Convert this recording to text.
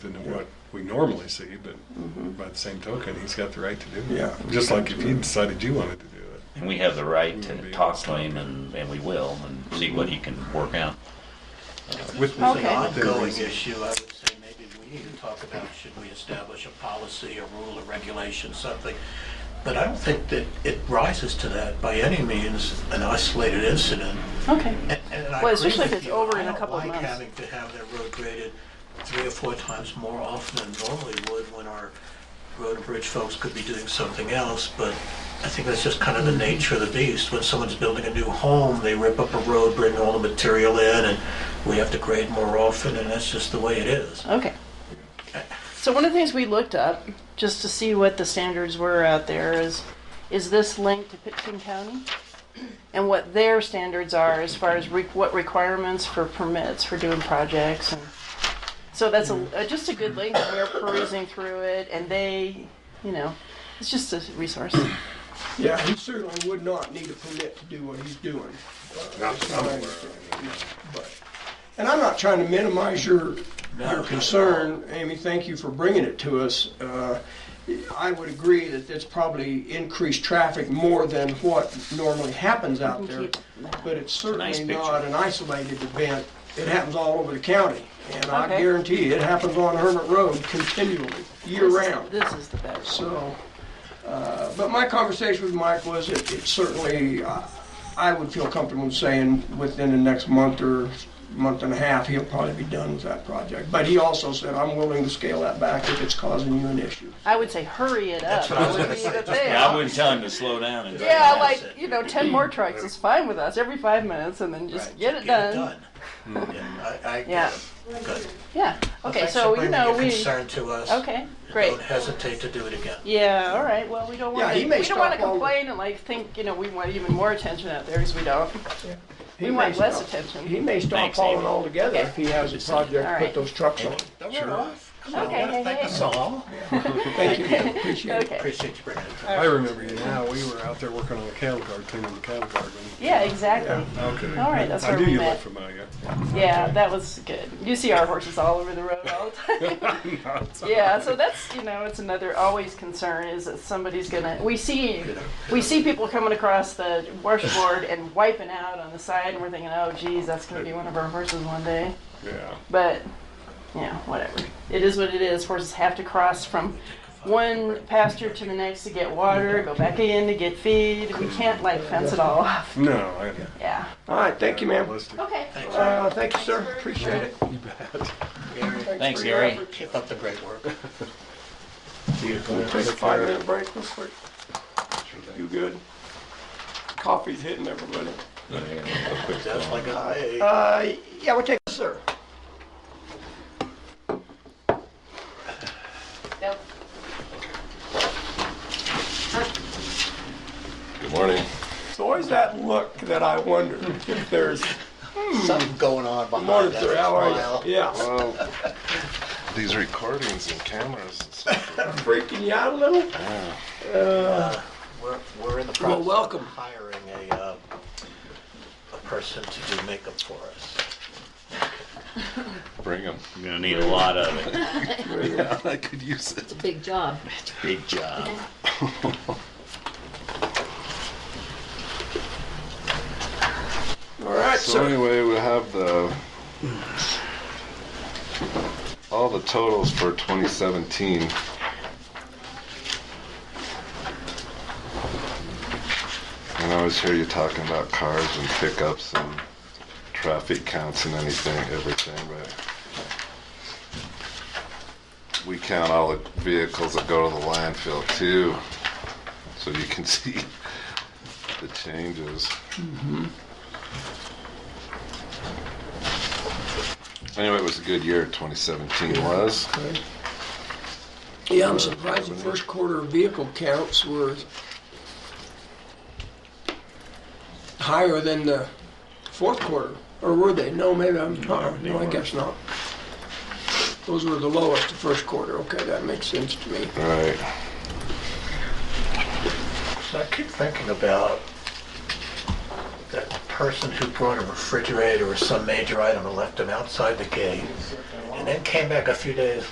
than what we normally see, but by the same token, he's got the right to do it. Yeah. Just like if you decided you wanted to do it. And we have the right We'll to be talk able to to him and, and we will and see what he can work out. With Okay. It's an their ongoing reason. issue, I would say maybe we need to talk about, should we establish a policy, a rule, a regulation, something? But I don't think that it rises to that by any means, an isolated incident. Okay. And- and I Well, agree especially if with it's you. over in a couple of I don't months. like having to have that road graded three or four times more often than normally would when our road and bridge folks could be doing something else, but I think that's just kind of the Mm-hmm. nature of the beast. When someone's building a new home, they rip up a road, bring all the material in, and we have to grade more often, and that's just the way it is. Okay. So one of the things we looked up just to see what the standards were out there is is this linked to Pitkin County and what their standards are as far as re- what requirements for permits for doing projects and so that's a, uh just a good link. and We're perusing through it and they, you know, it's just a resource. Yeah, he certainly would not need a permit to do what he's doing. uh, Not is that I'm my aware of, understanding, but- And I'm not trying to minimize your, not at your all. concern, Amy, thank you for bringing it to us. Uh, I would agree that that's probably increased traffic more than what normally happens out there, but it's nice certainly picture. not an isolated event. It happens all over the county, and I Okay. guarantee you, it happens on Hermit Road continually, year round. This is the best. So, uh, but my conversation with Mike was, it it certainly, uh, I would feel comfortable saying within the next month or month and a half, he'll probably be done with that project. But he also said, I'm willing to scale that back if it's causing you an issue. I would say hurry it That's up. what I was That would gonna be say. the Just thing. Yeah, I wouldn't tell him to slow down and. Yeah, Yeah, like that's it. you know, ten more trucks is fine with us every five minutes, and then just Right, get, it, done. done. Yeah, I, I Yeah. get it. Good. Yeah. Well, Okay. thanks for So you bringing know your we. Concern to us. Okay. Great. Don't hesitate to do it again. Yeah. All right. Well, we don't Yeah, want he to. may We don't want to stop all- complain and like think you know we want even more attention out there because we don't. He We may want less stop- attention. He may stop Thanks, hauling Amy. altogether if he has a All project, right. put those trucks on. Sure. Come on, Okay, hey, thank hey. us all. Thank you, appreciate it. Okay. Appreciate you bringing it. I remember you now, we were out there working on the cattle guard, cleaning the cattle guard. when- Yeah. Exactly. Okay. All right, that's I where knew we you met. looked familiar. Yeah. That was good. You see our horses all over the road all the time. yeah so that's you know it's another always concern is that somebody's gonna we see we see people coming across the washboard and wiping out on the side and we're thinking oh geez that's gonna be one of our horses one day Yeah. but you know whatever it is what it is horses have to cross from one pasture to the next to get water go back in to get feed we can't like fence it all off No, I. yeah All right, thank you, ma'am. Realistic. okay Uh, Thank you, sir, appreciate it. You bet. Gary, Thanks, for your Gary. efforts. keep up the great work. We'll take a five-minute break real quick. You good? Coffee's hitting everybody. That's like a, hey. Uh, yeah, we'll take, sir. Nope. Good morning. It's always that look that I wonder if there's something going on behind morning, that sir. How smile. are you? Yeah, Well, these recordings and cameras and stuff. freaking you out a little. Yeah. Uh, We're, we're in the Well, process welcome. of hiring a, uh, a person to do makeup for us. Bring them. You're gonna need a lot of it. I could use it. Big job. Big job. All right, So sir. anyway, we have the all the totals for 2017. And I always hear you talking about cars and pickups and traffic counts and anything, everything, but we count all the vehicles that go to the landfill too, so you can see the changes. Anyway, it was a good year, 2017 was. Yeah, I'm surprised the first quarter vehicle counts were higher than the fourth quarter, or were they? No, maybe I'm, uh-uh. no, I guess not. Those were the lowest, the first quarter. Okay, that makes sense to me. Right. So I keep thinking about that person who brought a refrigerator or some major item and left them outside the gate, and then came back a few days